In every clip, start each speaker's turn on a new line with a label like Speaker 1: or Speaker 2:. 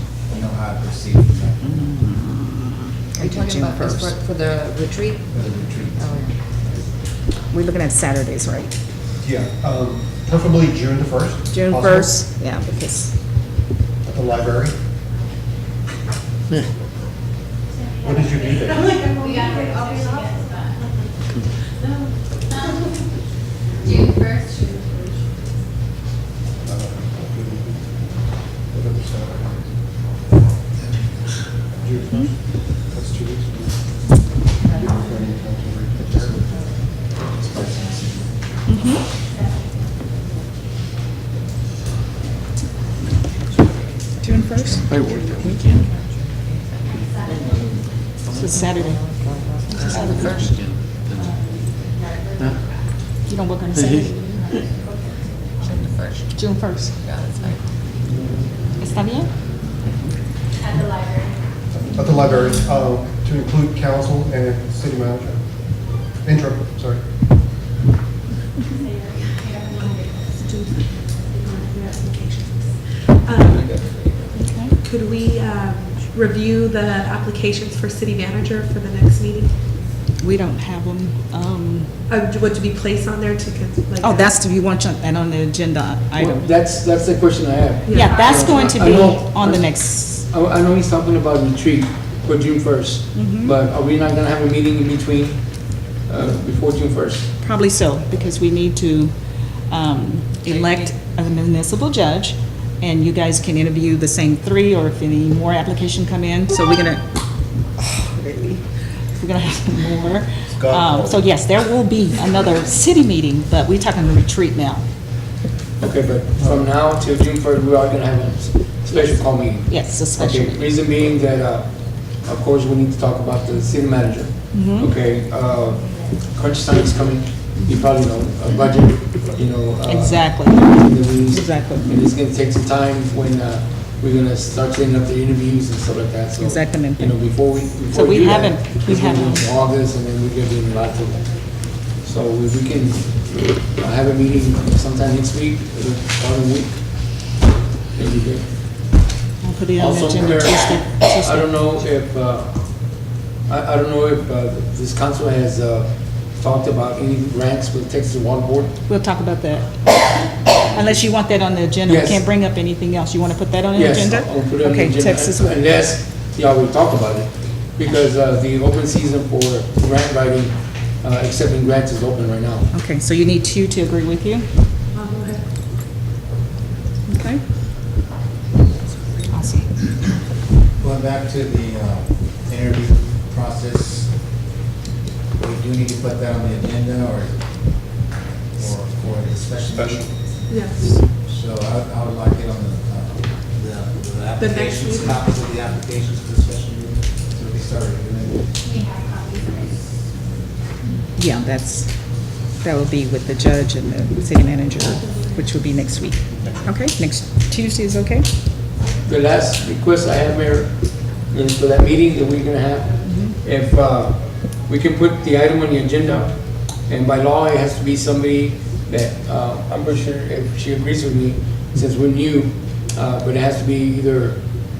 Speaker 1: I've received from that,
Speaker 2: Are you talking about this for, for the retreat?
Speaker 1: for the retreat.
Speaker 2: Oh,
Speaker 3: We're looking at Saturdays, right?
Speaker 4: Yeah, um, preferably June the 1st.
Speaker 3: June
Speaker 4: possible,
Speaker 3: 1st, yeah, because,
Speaker 4: At the library. What did you do there?
Speaker 5: June first, June
Speaker 4: What other Saturday? June 1st? That's two weeks.
Speaker 6: June first? I work that weekend.
Speaker 7: It's a Saturday. You don't work on a Saturday? June first. June first. ¿Está bien?
Speaker 5: at the library.
Speaker 4: At the library, um, to include council and city manager. Interim, sorry.
Speaker 8: Um, Could we um, review the applications for city manager for the next meeting?
Speaker 7: We don't have them, um,
Speaker 8: Uh, Would be placed on there to, con- like?
Speaker 7: oh, that's, you want that on the agenda
Speaker 9: Well,
Speaker 7: item?
Speaker 9: That's, that's the question I have.
Speaker 7: Yeah, that's going to be
Speaker 9: I know-
Speaker 7: on the next,
Speaker 9: I, I know he's talking about retreat for June first,
Speaker 8: Mm-hmm.
Speaker 9: but are we not gonna have a meeting in between, uh, before June first?
Speaker 7: probably so, because we need to, um, elect a municipal judge, and you guys can interview the same three, or if any more application come in, so we're gonna, really, we're gonna have more. Um, so yes, there will be another city meeting, but we're talking retreat now,
Speaker 9: Okay, but from now till June first, we are gonna have a s- special call meeting.
Speaker 7: yes,
Speaker 9: Okay,
Speaker 7: especially.
Speaker 9: reason being that, uh, of course, we need to talk about the city manager.
Speaker 7: Mm-hmm. Hmm?
Speaker 9: Okay, uh, crunch time is coming, you probably know, a budget, you know. uh,
Speaker 7: Exactly.
Speaker 9: interviews.
Speaker 7: Exactly.
Speaker 9: And it's gonna take some time when, uh, we're gonna start setting up the interviews and stuff like that, so.
Speaker 7: Exactamente.
Speaker 9: You know, before we, before
Speaker 7: So we
Speaker 9: do that,
Speaker 7: haven't- we
Speaker 9: it's gonna be
Speaker 7: haven't.
Speaker 9: in August, and then we give them lots of, so we we can uh, have a meeting sometime next week, or the following week. That'd be good.
Speaker 7: I'll put it on the
Speaker 9: Also,
Speaker 7: agenda
Speaker 9: Mayor,
Speaker 7: Tuesday.
Speaker 9: I don't know if, uh, I, I don't know if uh, this council has uh, talked about any grants with Texas Water Board.
Speaker 7: We'll talk about that. Unless you want that on the agenda, we
Speaker 9: Yes.
Speaker 7: can't bring up anything else. You want to put that on the
Speaker 9: Yes,
Speaker 7: agenda?
Speaker 9: I'll put it on the
Speaker 7: Okay,
Speaker 9: agenda,
Speaker 7: Texas Water.
Speaker 9: Unless, yeah, we talked about it, because uh, the open season for grant writing, uh, accepting grants is open right now.
Speaker 7: Okay, so you need two to agree with you?
Speaker 8: Um,
Speaker 7: Okay. Awesome.
Speaker 1: Going back to the uh, interview process, we do need to put that on the agenda or, or for the special
Speaker 4: Special.
Speaker 1: meeting.
Speaker 8: Yes.
Speaker 10: Um,
Speaker 1: So I, I would like it on the, uh, the, the
Speaker 8: The next
Speaker 1: applications,
Speaker 8: meeting.
Speaker 1: copies of the applications for the special meeting, so we can start reviewing. it.
Speaker 5: We have copies of it.
Speaker 7: Yeah, that's, that will be with the judge and the city manager, which will be next week. Okay, next Tuesday is okay?
Speaker 9: The last request I have, Mayor, is for that meeting that we're gonna have, if uh, we can put the item on the agenda, and by law, it has to be somebody that, uh, I'm pretty sure if she agrees with me, since we're new, uh, but it has to be either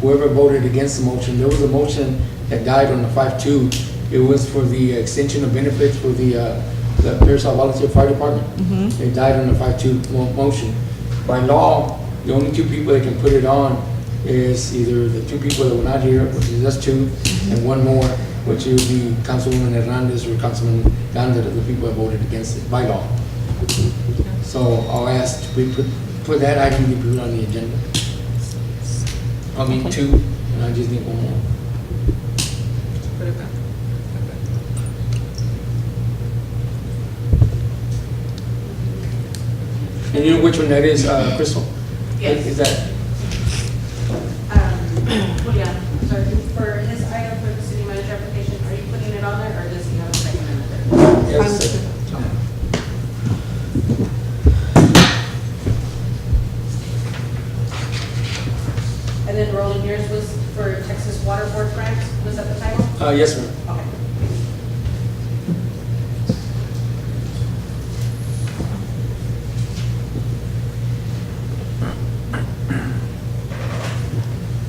Speaker 9: whoever voted against the motion, there was a motion that died on the five-two, it was for the extension of benefits for the, uh, the Pearsall Volunteer Fire Department. It died on the five-two motion. By law, the only two people that can put it on is either the two people that were not here, which is us two, and one more, which would be Councilwoman Hernandez or Councilman Gondar, the people that voted against it by law. So I'll ask, we put, put that item to put on the agenda. I mean, two, and I just need one more. And you know which one that is, uh, Crystal?
Speaker 5: Yes.
Speaker 9: Is that,
Speaker 10: Um, Yeah, so for his item for the city manager application, are you putting it on there or does he have a second amendment?
Speaker 9: yes,
Speaker 10: And then Rolling Years was for Texas Water Board grant, was that the title?
Speaker 9: uh, yes, ma'am.
Speaker 10: Okay.